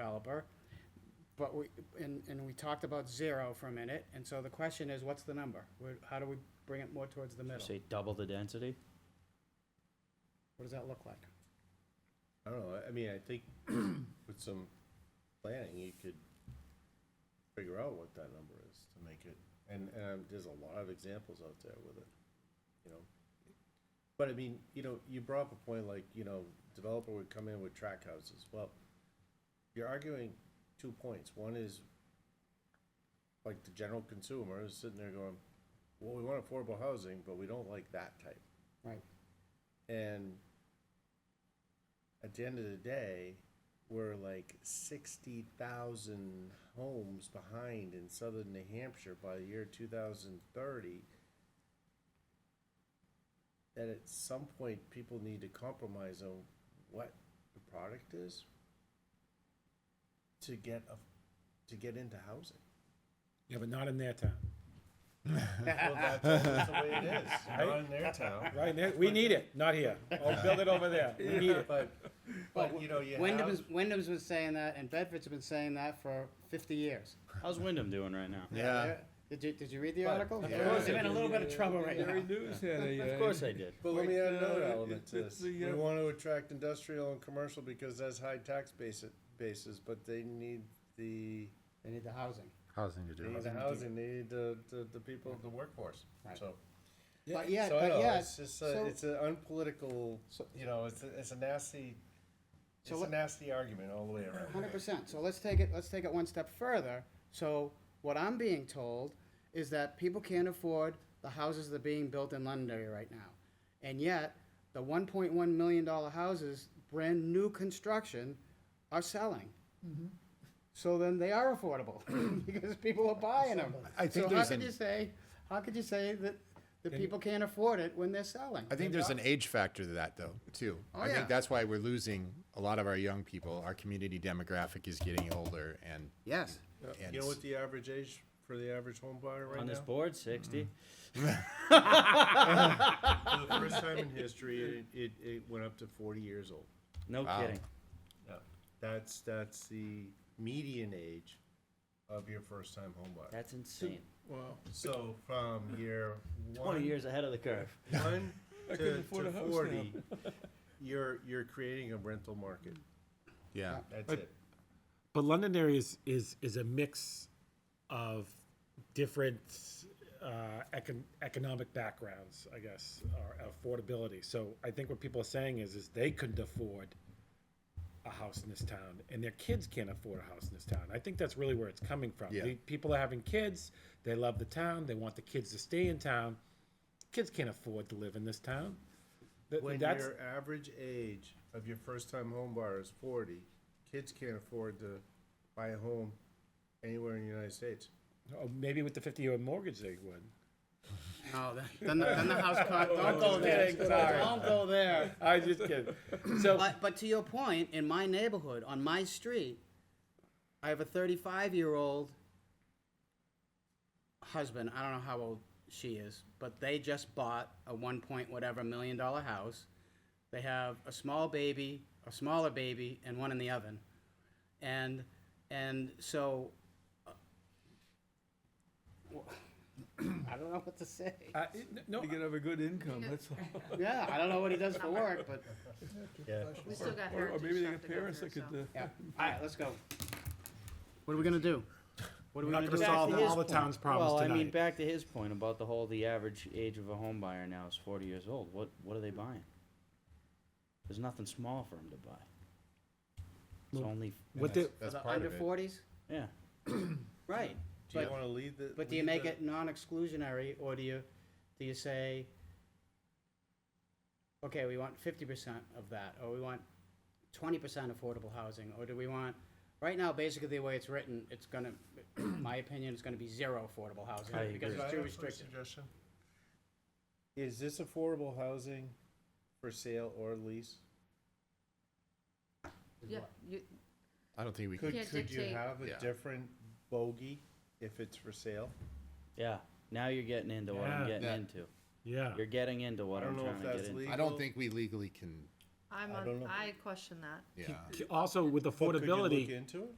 developer, but we, and, and we talked about zero for a minute, and so the question is, what's the number? Where, how do we bring it more towards the middle? Say double the density? What does that look like? I don't know, I- I mean, I think with some planning, you could figure out what that number is to make it, and, and um, there's a lot of examples out there with it, you know? But I mean, you know, you brought up a point like, you know, developer would come in with track houses, well, you're arguing two points, one is like the general consumer is sitting there going, well, we want affordable housing, but we don't like that type. Right, And at the end of the day, we're like sixty thousand homes behind in southern New Hampshire by the year two thousand thirty. That at some point, people need to compromise on what the product is to get a, to get into housing. Yeah, but not in their town. Well, that's, that's the way it is, not in their town. Right, there- we need it, not here. Oh, build it over there, we need it. But, but you know, you Wyndham's, have, Wyndham's been saying that, and Bedford's been saying that for fifty years. How's Wyndham doing right now? They're- Did you, did you read the But- article? Of They're course in I a little bit of trouble right now. Of course I did. but let me add another element to It's this. the, We uh, want to attract industrial and commercial because that's high tax basis, basis, but they need the, They need the housing. Housing to they do. need it. the housing, they need the, the, the people, the workforce, Right. so. But yet, So I but know, yet, it's just, a- so, it's an unpolitical, So- you know, it's, a- it's a nasty, it's So a let- nasty argument all the way around. hundred percent, so let's take it, let's take it one step further. So what I'm being told is that people can't afford the houses that are being built in Londonderry right now. And yet, the one point one million dollar houses, brand new construction, are selling. So then they are affordable, because people are buying them. I think So how there's could an- you say, how could you say that the people can't afford it when they're selling? I think there's an age factor to that, though, too. I yeah. think that's why we're losing a lot of our young people. Our community demographic is getting older, and Yes. and You know what the average age for the average home buyer right On this now? board, Mm. sixty? For the first time in history, it, it, it went up to forty years old. No Wow. kidding. Yeah, that's, that's the median age of your first time home buyer. That's insane. So from year one. Twenty years ahead of the curve. One couldn't to, afford to a house now. forty, you're, you're creating a rental market, yeah. that's it. But Londonderry is, is, is a mix of different uh, econ- economic backgrounds, I guess, or affordability. So I think what people are saying is, is they couldn't afford a house in this town, and their kids can't afford a house in this town. I think that's really where it's coming from. Yeah. The people are having kids, they love the town, they want the kids to stay in town. Kids can't afford to live in this town. Th- When that's, your average age of your first time home buyer is forty, kids can't afford to buy a home anywhere in the United States. oh, maybe with the 50 year mortgage, they would. No, then, then the, then the house caught, don't go there, kidding, sorry. don't go there. I just kidding. So, But, but to your point, in my neighborhood, on my street, I have a 35 year old husband. I don't know how old she is, but they just bought a one point whatever million dollar house. They have a small baby, a smaller baby, and one in the oven. And, and so, uh, I don't know what to say. I, n- no, You can have a good income, that's all. Yeah, I don't know what he does for work, but Yeah. We still got Or or heritage maybe they stuff got to go parents through, that could, so. uh, Yeah, all right, let's go. What are we gonna do? What are We're we not gonna do? gonna solve his all the town's Well, problems I mean, tonight. back to his point about the whole, the average age of a home buyer now is forty years old. What, what are they buying? There's nothing small for them to buy. It's Well, only, What the, For That's the part under of it. forties? yeah. Right, Do you but, wanna lead the? but do you lead make the- it non-exclusionary, or do you, do you say, okay, we want fifty percent of that, or we want twenty percent affordable housing, or do we want, right now, basically the way it's written, it's gonna, my opinion, it's gonna be zero affordable I housing, agree. because Can it's I have too a restrictive. suggestion? Is this affordable housing for sale or lease? Yeah, you, I don't think we could. Could, can't could you dictate. have a Yeah. different bogey if it's for sale? Yeah, now you're getting into what I'm Yeah. getting Yeah. into. yeah. You're getting into I what I'm don't know trying if to get that's into. legal. I don't think we legally can I'm, I on- don't know. I question that. yeah. Also with But could you look affordability. into it?